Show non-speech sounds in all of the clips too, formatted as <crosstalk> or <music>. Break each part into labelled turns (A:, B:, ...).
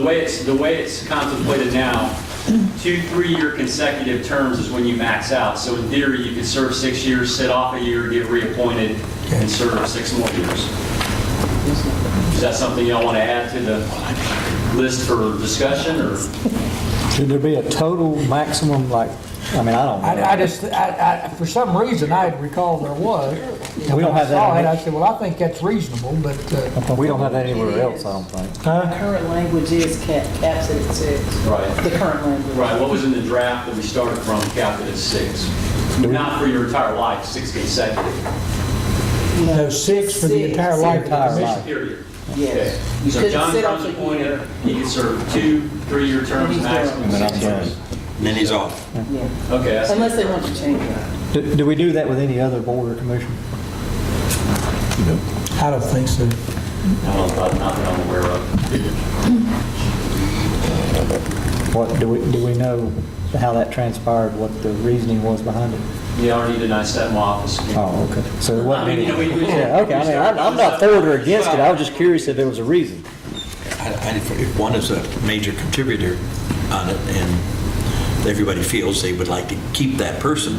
A: The way it's, the way it's contemplated now, two, three-year consecutive terms is when you max out. So in theory, you could serve six years, sit off a year, get reappointed, and serve six more years. Is that something y'all want to add to the list for discussion, or?
B: Should there be a total maximum, like, I mean, I don't know.
C: I, I just, I, I, for some reason, I recall there was. And
B: We don't
C: when I
B: have that
C: saw
B: on
C: it, I
B: this.
C: said, well, I think that's reasonable, but, uh,
B: We don't have that anywhere else, I don't think.
C: huh?
D: Current language is cap, caps it at six.
A: Right.
D: The current language.
A: Right, what was in the draft that we started from, capped it at six? Not for your entire life, six consecutive,
C: No, six for the entire
D: Six.
C: life of the
B: Entire
C: commission.
B: life.
A: period.
D: Yes.
A: Okay.
D: You
A: So
D: couldn't
A: John
D: sit off
A: Brown's
D: a
A: appointed,
D: year.
A: he can serve two, three-year terms
D: And he's
A: maximum.
D: there.
A: six
B: And I'm
A: years.
E: Then he's off.
D: Yeah.
A: Okay, that's
D: Unless they want to change it.
B: Do do we do that with any other board or commission?
C: I don't think so.
A: I don't, I'm not that I'm aware of.
B: What, do we, do we know how that transpired, what the reasoning was behind it?
A: Yeah, I already denied that in my office.
B: Oh, okay. So it
A: I
B: wasn't
A: mean,
B: any...
A: you know, we- we-
B: Yeah, okay, I mean, I'm I'm not for it or against it, I was just curious if there was a reason.
E: I- I- If one is a major contributor on it and everybody feels they would like to keep that person,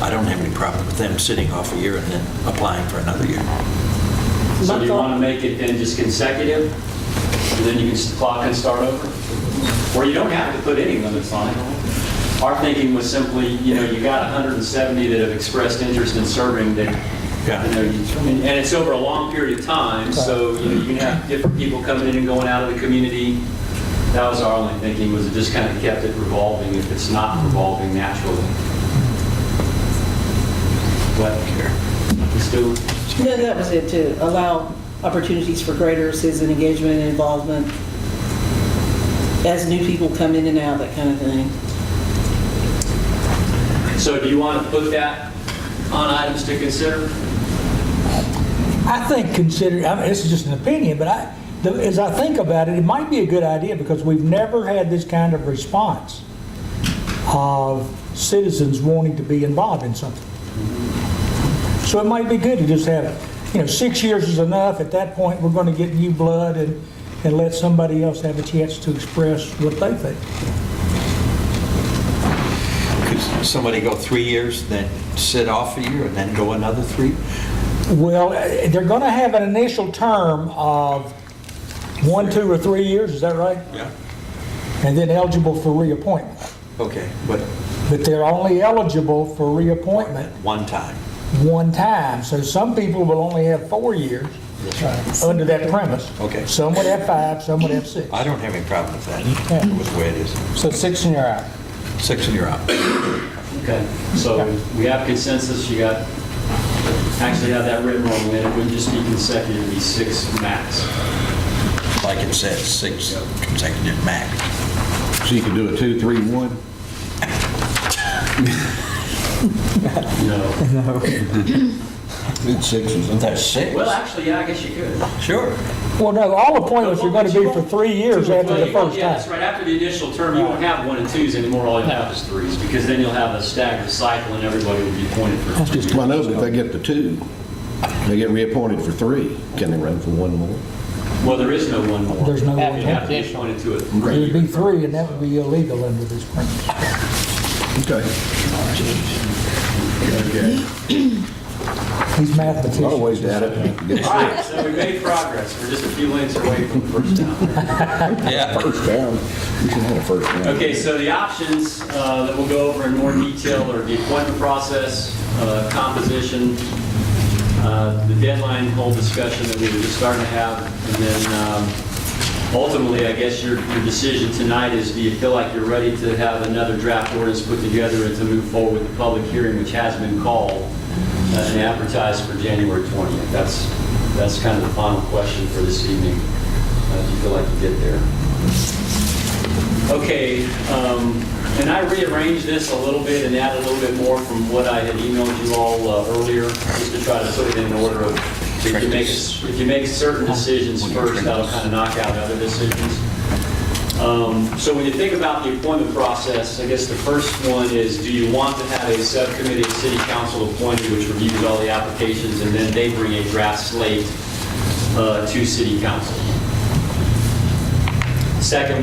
E: I don't have any problem with them sitting off a year and then applying for another year.
A: So do you want to make it then just consecutive? And then you can s- clock and start over? Or you don't have to put any limits on it. Our thinking was simply, you know, you got 170 that have expressed interest in serving that,
E: Yeah.
A: you know, you- and and it's over a long period of time, so, you know, you can have different people coming in and going out of the community. That was our only thinking, was it just kind of kept it revolving if it's not revolving naturally. But, let's do it.
D: No, that was it too. Allow opportunities for greater citizen engagement and involvement as new people come in and out, that kind of thing.
A: So do you want to put that on items to consider?
C: I think consider, I mean, this is just an opinion, but I, the- as I think about it, it might be a good idea because we've never had this kind of response of citizens wanting to be involved in something. So it might be good to just have, you know, six years is enough. At that point, we're going to get new blood and, and let somebody else have a chance to express what they think.
E: Could somebody go three years, then sit off a year, and then go another three?
C: Well, eh, they're going to have an initial term of one, two, or three years, is that right?
E: Yeah.
C: And then eligible for reappointment.
E: Okay, but
C: But they're only eligible for reappointment
E: one time.
C: one time. So some people will only have four years under that premise.
E: Okay.
C: Some would have five, some would have six.
E: I don't have any problem with that, with the way it is.
F: So six and you're out.
E: Six and you're out.
A: Okay, so we have consensus, you got, actually have that written wrong, then it wouldn't just be consecutive, it'd be six max.
E: Like it says, six consecutive max.
G: So you could do a two, three, one?
C: Mm-hmm.
A: No.
G: It's six or something.
E: That's six?
A: Well, actually, yeah, I guess you could.
E: Sure.
C: Well, no, all appointments are going to be for three years after the
A: Well,
C: first
A: Yeah, that's
C: time.
A: right, after the initial term, you won't have one and twos anymore, all you'll have is threes, because then you'll have a staggered cycle and everybody will be appointed for three
G: Well, I know, but if
A: years.
G: they get the two, they get reappointed for three. Can they run for one more?
A: Well, there is no one more.
C: There's no one
A: You'd have to be
F: more.
A: appointed to a
C: It would be
A: three-year term.
C: three, and that would be illegal under this premise.
G: Okay.
C: He's
G: A lot of
C: mathematician.
G: ways to add it.
A: All right, so we made progress, we're just a few lengths away from the first down.
E: Yeah.
G: <laughs> First down. We should have a first down.
A: Okay, so the options uh, that we'll go over in more detail are the appointment process, uh, composition, uh, the deadline, whole discussion that we were just starting to have, and then um, ultimately, I guess your your decision tonight is, do you feel like you're ready to have another draft ordinance put together and to move forward with the public hearing, which has been called uh, and advertised for January 20th? That's, that's kind of the final question for this evening. Uh, Do you feel like you get there? Okay, um, and I rearranged this a little bit and added a little bit more from what I had emailed you all uh, earlier, just to try to put it in order of, if you make, if you make certain decisions first, that'll kind of knock out other decisions. Um, So when you think about the appointment process, I guess the first one is, do you want to have a subcommittee of city council appointed which reviews all the applications and then they bring a draft slate uh, to city council? Second